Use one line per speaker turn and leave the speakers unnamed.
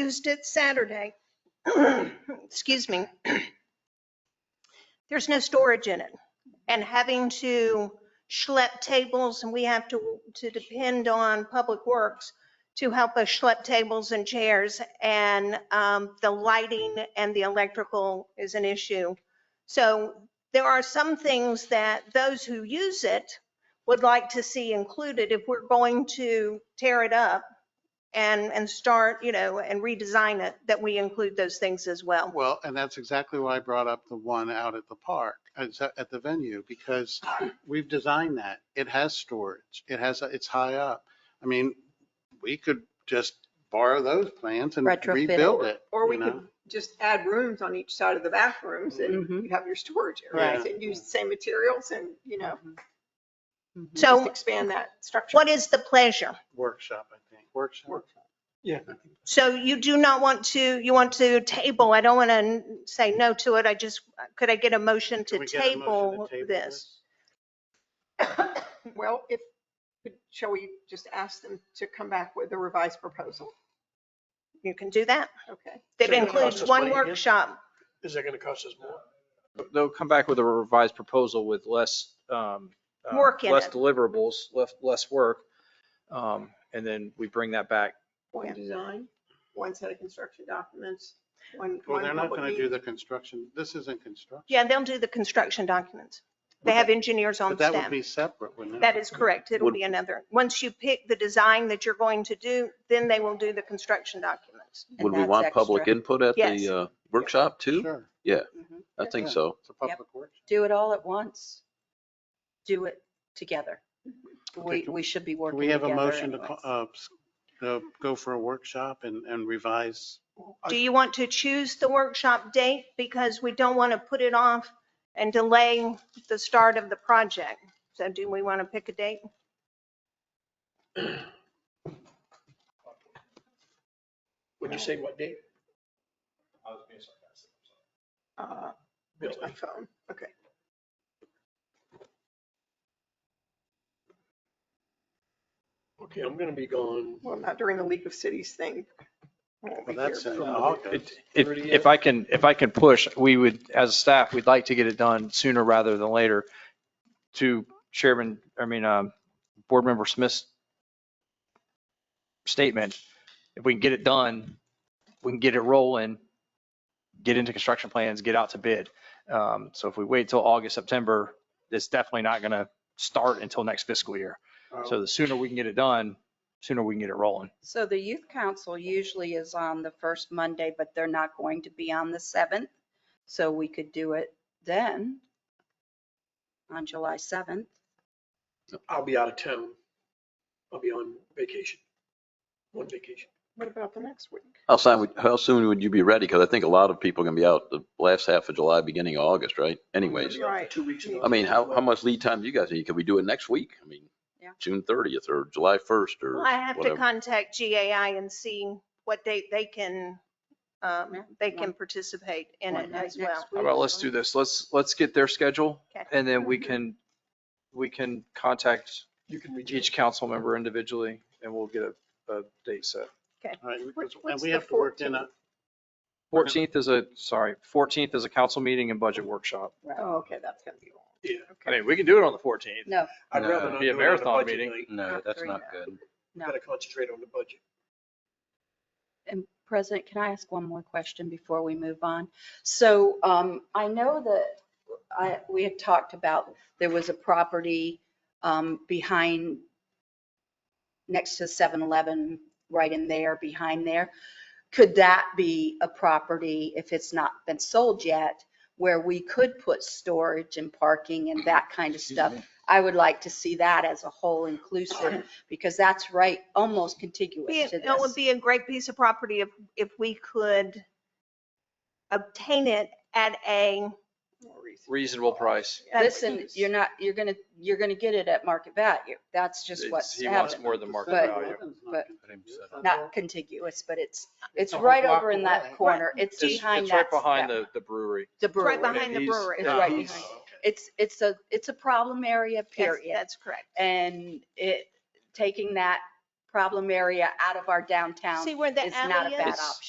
used it Saturday. Excuse me. There's no storage in it. And having to schlep tables and we have to, to depend on Public Works to help us schlep tables and chairs and um, the lighting and the electrical is an issue. So there are some things that those who use it would like to see included if we're going to tear it up and, and start, you know, and redesign it, that we include those things as well.
Well, and that's exactly why I brought up the one out at the park, at the- at the venue, because we've designed that. It has storage. It has, it's high up. I mean, we could just borrow those plans and
Retrofit it.
rebuild it.
Or we
you
could
know?
just add rooms on each side of the bathrooms and
Mhm.
you have your storage areas
Right.
and use the same materials and, you know,
Mm-hmm.
just
So
expand that structure.
what is the pleasure?
Workshop, I think, workshop.
So you do not want to, you want to table, I don't want to say no to it, I just, could I get a motion
Can
to
we get a motion to
table
table
this?
Well, if, shall we just ask them to come back with a revised proposal?
You can do that.
Okay.
That
So it costs
includes
us
one
money again?
workshop.
Is that going to cost us more?
They'll come back with a revised proposal with less. um, uh,
Work in
Less
it.
deliverables, less, less work. Um, And then we bring that back.
One design, one set of construction documents, one.
Well,
one
they're not
public
going to do
meeting.
the construction. This isn't construction.
Yeah, they'll do the construction documents. They
But
have engineers on
But that would
staff.
be separate, wouldn't it?
That is correct. It'll
Would-
be another. Once you pick the design that you're going to do, then they will do the construction documents.
And
Would we
that's
want public
extra.
input at
Yes.
the uh, workshop too?
Sure.
I think
Yeah.
so.
It's a public workshop.
Do it all at once. Do it together.
Okay,
We,
can-
we should be
Can
working
we have
together.
a motion to,
anyways.
co- uh, s- to go for a workshop and, and revise?
Do you want to choose the workshop date? Because we don't want to put it off and delay the start of the project. So do we want to pick a date?
Would you say what date?
Uh, Where's my phone? Okay.
Okay, I'm going to be gone.
Well, not during the League of Cities thing. I won't be
Well, that's oh,
here,
in
but-
August.
If, if I can, if I can push, we would, as a staff, we'd like to get it done sooner rather than later. To Chairman, I mean, um, Board Member Smith's statement, if we can get it done, we can get it rolling, get into construction plans, get out to bid. Um, So if we wait till August, September, it's definitely not going to start until next fiscal year. So the sooner we can get it done, sooner we can get it rolling.
So the youth council usually is on the first Monday, but they're not going to be on the seventh. So we could do it then on July seventh.
I'll be out of town. I'll be on vacation. One vacation.
What about the next week?
How soon, would- how soon would you be ready? Because I think a lot of people are going to be out the last half of July, beginning of August, right? Anyways,
I'll be out for
Right.
Two weeks.
I mean, how, how much lead time do you guys need? Could we do it next week? I mean,
Yeah.
June 30th or July 1st or
Well, I have to
whatever.
contact GAI and see what date they can, um,
Yeah,
they
one-
can participate in
one
it
night
as
next
well.
How about let's do this, let's, let's get their schedule
Okay.
and then we can, we can contact
You can reach
each council member individually and we'll get a, a date set.
All right, we-
What's-
And
what's
we
the
have to work in a,
14th?
Fourteenth is a, sorry, fourteenth is a council meeting and budget workshop.
Oh, okay, that's gonna be long.
Yeah.
I mean, we can do it on the fourteenth.
No,
I'd rather
No.
not
Be a
do it on a
marathon
budget
meeting.
night.
Not
No, that's
three,
not
no.
good.
We've Got to concentrate on the budget.
And President, can I ask one more question before we move on? So um, I know that I, we had talked about, there was a property um, behind, next to 7-Eleven, right in there, behind there. Could that be a property, if it's not been sold yet, where we could put storage and parking and that kind of stuff? I would like to see that as a whole inclusive, because that's right, almost
Be-
contiguous to
It
this.
would be a great piece of property if, if we could obtain it at a,
More reason.
Reasonable price.
That's
Listen, you're not, you're gonna, you're gonna get it at market value. That's just
It's-
what's
He wants
happening.
more than market
But-
value.
but- Not contiguous, but it's, it's
a whole
right
block
over in that
away.
corner. It's
It's it's
behind that.
right behind
that-
the, the Oh, brewery.
The brewery.
right behind the
He's-
brewery.
It's right
he's-
behind. It's, it's a, it's a problem area,
Yes,
period.
That's correct.
And it, taking that problem area out of our downtown
See where the
is not a
alley
bad
is?
option.